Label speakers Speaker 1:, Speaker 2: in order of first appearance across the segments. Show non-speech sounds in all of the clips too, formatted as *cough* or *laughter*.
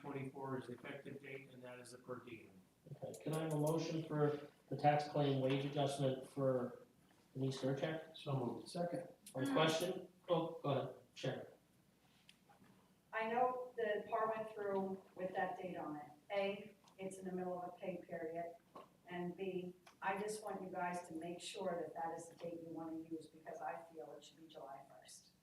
Speaker 1: twenty-four is the effective date, and that is the per diem.
Speaker 2: Okay, Can I have a motion for the tax claim wage adjustment for Denise Gercheck?
Speaker 1: So moved.
Speaker 3: Second.
Speaker 2: On question? Oh, go ahead, Sharon.
Speaker 4: I know the par went through with that date on it. A, it's in the middle of a pay period, and B, I just want you guys to make sure that that is the date you want to use, because I feel it should be July first.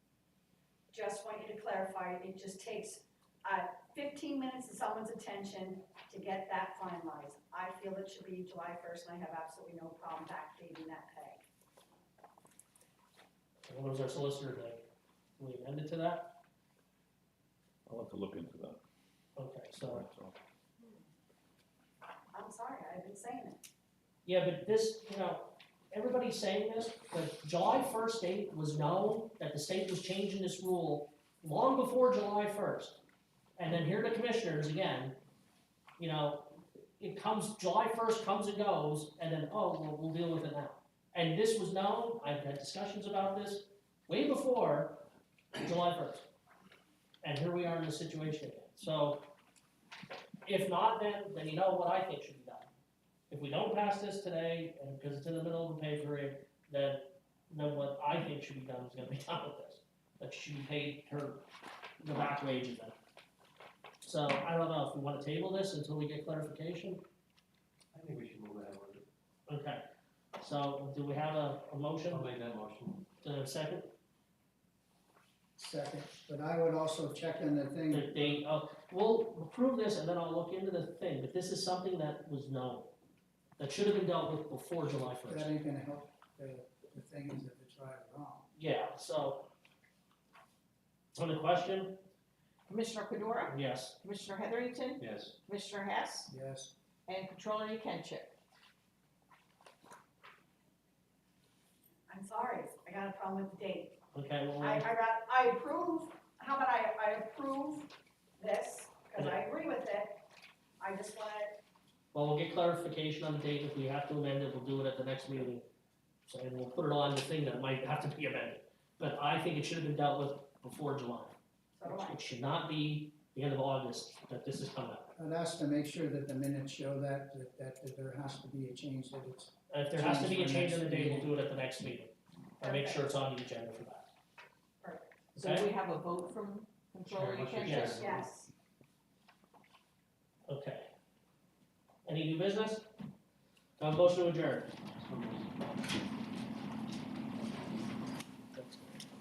Speaker 4: Just want you to clarify, it just takes, uh, fifteen minutes of someone's attention to get that finalized. I feel it should be July first, and I have absolutely no problem backdating that pay.
Speaker 2: And What was our solicitor like? We amended to that?
Speaker 5: I'll have to look into that.
Speaker 2: Okay, so,
Speaker 4: I'm sorry, I've been saying it.
Speaker 2: yeah, but this, you know, everybody's saying this, but July first date was known that the state was changing this rule long before July first. And then here the commissioners again, you know, it comes, July first comes and goes, and then, oh, well, we'll deal with it now. And this was known, I've had discussions about this way before July first. And here we are in this situation again. So if not, then, then you know what I think should be done. If we don't pass this today, and because it's in the middle of a pay period, then, then what I think should be done is gonna be *laughs* done with this. That she should be paid her, the back wages then. So I don't know if we wanna table this until we get clarification.
Speaker 1: I think we should move that one.
Speaker 2: Okay, so do we have a, a motion
Speaker 1: I'll make that motion.
Speaker 2: to a second,
Speaker 3: Second, but I would also check in the
Speaker 2: the
Speaker 3: thing,
Speaker 2: date, oh, we'll approve this and then I'll look into the thing, but this is something that was known. That should have been dealt with before July first.
Speaker 3: that ain't gonna help the, the thing is if it's right or wrong.
Speaker 2: Yeah, so. On the question,
Speaker 6: Commissioner Pedora,
Speaker 2: yes,
Speaker 6: Commissioner Heatherington,
Speaker 1: Yes.
Speaker 6: Commissioner Hess,
Speaker 3: Yes,
Speaker 6: and Controller Yekenship.
Speaker 4: I'm sorry, I got a problem with the date.
Speaker 2: okay, well,
Speaker 4: I, I
Speaker 2: we'll-
Speaker 4: got, I approve, how about I, I approve this, because I agree with it. I just want it,
Speaker 2: well, we'll get clarification on the date, if we have to amend it, we'll do it at the next meeting. So, and we'll put it on the thing that might have to be amended, but I think it should have been dealt with before July.
Speaker 4: so do I.
Speaker 2: It should not be the end of August that this is coming up.
Speaker 3: I'd ask to make sure that the minutes show that, that, that there has to be a change, that it's,
Speaker 2: If there has to be a
Speaker 3: Change for
Speaker 2: change in
Speaker 3: next
Speaker 2: the date, we'll
Speaker 3: meeting.
Speaker 2: do it at the next meeting. And make sure it's on the agenda for that.
Speaker 6: So
Speaker 2: Okay.
Speaker 6: we have a vote from Controller
Speaker 1: Sure, motion
Speaker 6: Yekenship.
Speaker 2: Yes.
Speaker 4: Yes,
Speaker 2: Okay. Any new business? Do I have a motion to adjourn?